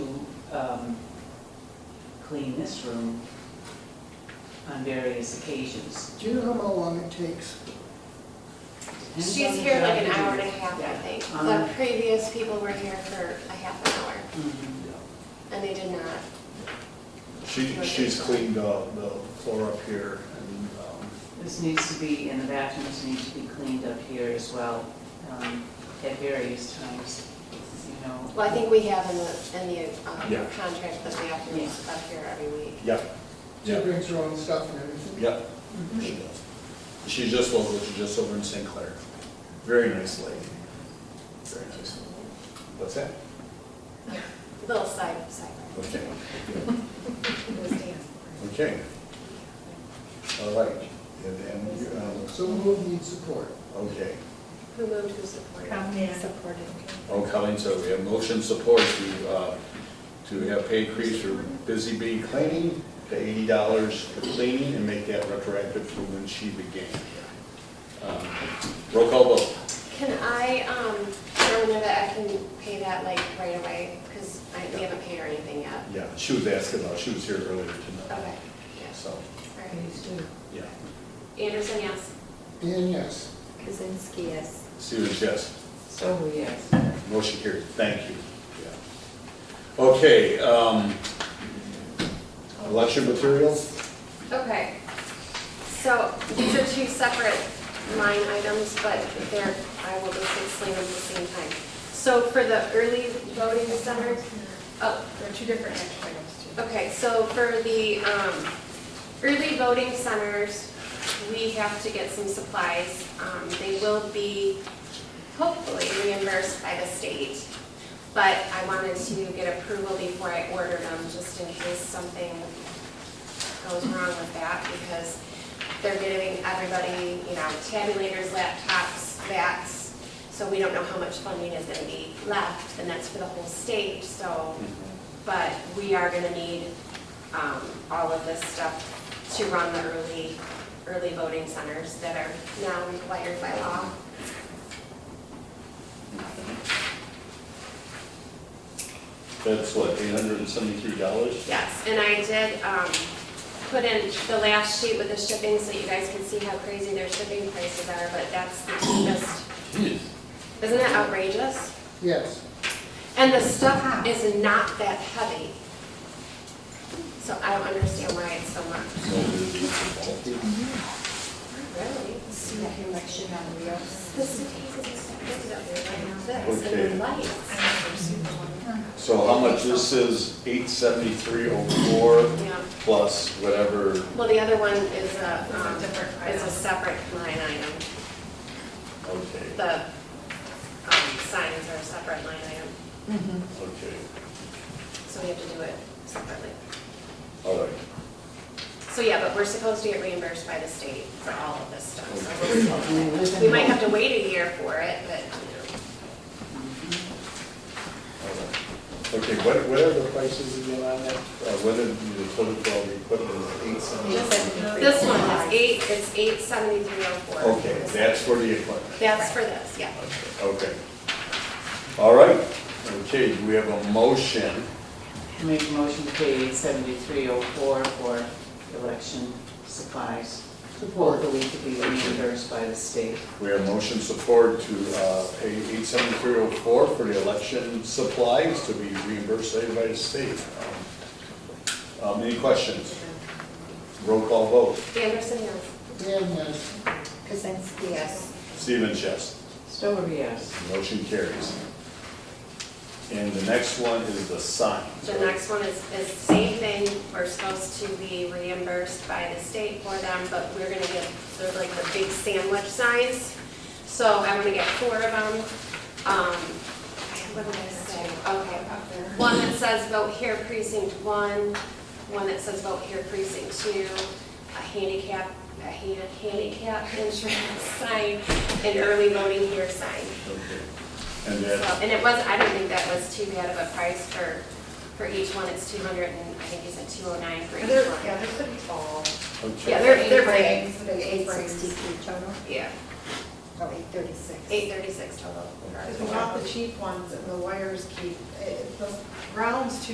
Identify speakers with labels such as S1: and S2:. S1: um, clean this room on various occasions.
S2: Do you know how long it takes?
S1: Depends
S3: She's
S1: on the
S3: here
S1: job
S3: like an
S1: you
S3: hour and
S1: do.
S3: a half, I think.
S1: Um,
S3: The previous people were here for a half an hour,
S1: Mhm.
S3: and they did not.
S4: She, she's cleaned uh, the floor up here and, um,
S1: This needs to be, and the bathrooms need to be cleaned up here as well, um, at various times, you know.
S3: Well, I think we have in the, in the um,
S4: Yeah.
S3: contract that we have to use up here every week.
S4: yep,
S2: She
S4: Yeah.
S2: brings her own stuff and everything.
S4: yep, she does. She's just local, she's just over in St. Clair. Very nice lady. Very nice. What's that?
S3: Little side, side.
S4: Okay.
S3: It was Dan.
S4: Okay. All right. And then, um,
S2: So move needs support.
S4: okay.
S3: Who moved, who supported?
S5: Colleen.
S3: Supported.
S4: Oh, Colleen, so we have motion support to, uh, to have pay increase for busy bee cleaning to eighty dollars for cleaning and make that retroactive for when she began. Um, Roll call vote.
S3: Can I, um, tell her that I can pay that like right away? Because I, we haven't paid her anything yet.
S4: Yeah, she was asking about, she was here earlier tonight.
S3: Okay, yes,
S4: So,
S3: all right.
S4: yeah.
S3: Anderson, yes.
S2: Dan, yes.
S5: Kuzinski, yes.
S4: Stevens, yes.
S1: So, yes.
S4: Motion carried. Thank you. Yeah. Okay, um, election materials?
S3: Okay, so these are two separate line items, but they're, I will just explain them at the same time. So for the early voting center, oh,
S5: There are two different action items too.
S3: okay, so for the um, early voting centers, we have to get some supplies. Um, They will be hopefully reimbursed by the state, but I wanted to get approval before I order them, just in case something goes wrong with that, because they're giving everybody, you know, tabulators, laptops, bats, so we don't know how much funding is gonna be left, and that's for the whole state, so, but we are gonna need, um, all of this stuff to run the early, early voting centers that are now required by law.
S4: That's what, eight hundred and seventy-three dollars?
S3: Yes, and I did um, put in the last sheet with the shipping so you guys can see how crazy their shipping prices are, but that's the cheapest. Isn't that outrageous?
S2: Yes.
S3: And the stuff is not that heavy. So I don't understand why it's so much. Really?
S5: See, I can like shit on wheels.
S3: The cities and stuff is up there like this, and
S4: Okay.
S3: the lights.
S4: So how much, this is eight seventy-three oh four
S3: Yeah.
S4: plus whatever,
S3: Well, the other one is a,
S5: It's a
S3: um,
S5: different
S3: is a
S5: item.
S3: separate line item.
S4: okay,
S3: The um, signs are a separate line item.
S4: okay,
S3: So we have to do it separately.
S4: all right.
S3: So yeah, but we're supposed to get reimbursed by the state for all of this stuff. so we're
S1: And
S3: supposed to-
S1: listen-
S3: We might have to wait a year for it, but you
S4: all right. Okay, what, what are the prices again on that? Uh, what did the total for all the equipment is eight
S3: know.
S4: seventy?
S3: Just- This one is eight, it's eight seventy-three oh four.
S4: Okay, that's for the equipment.
S3: That's for this, yeah.
S4: Okay. All right, okay, do we have a motion?
S1: I Make a motion to pay eight seventy-three oh four for election supplies. Support. Hopefully to be reimbursed by the state.
S4: We have motion support to uh, pay eight seventy-three oh four for the election supplies to be reimbursed later by the state. Um, Any questions? Roll call vote.
S3: Anderson, yes.
S2: Dan, yes.
S5: Kuzinski, yes.
S4: Stevens, yes.
S1: Stover, yes.
S4: Motion carries. And the next one is the sign.
S3: The next one is, is same thing, we're supposed to be reimbursed by the state for them, but we're gonna get, they're like the big sandwich signs. So I'm gonna get four of them. Um, what did I say? Okay. One that says vote here precinct one, one that says vote here precinct two, a handicap, a han- handicap insurance sign, an early voting here sign.
S4: Okay. And
S3: So,
S4: then,
S3: And it was, I don't think that was too bad of a price for, for each one, it's two hundred and, I think he said two oh nine for each
S5: They're, yeah,
S3: one.
S5: they're pretty tall.
S3: Yeah, they're,
S4: okay,
S3: they're
S5: Eight
S3: big,
S5: frames, they're Eight sixty-three total,
S3: yeah,
S5: oh, eight thirty-six.
S3: eight thirty-six total.
S5: eh, Because we got the cheap ones and the wires keep, it- the ground's too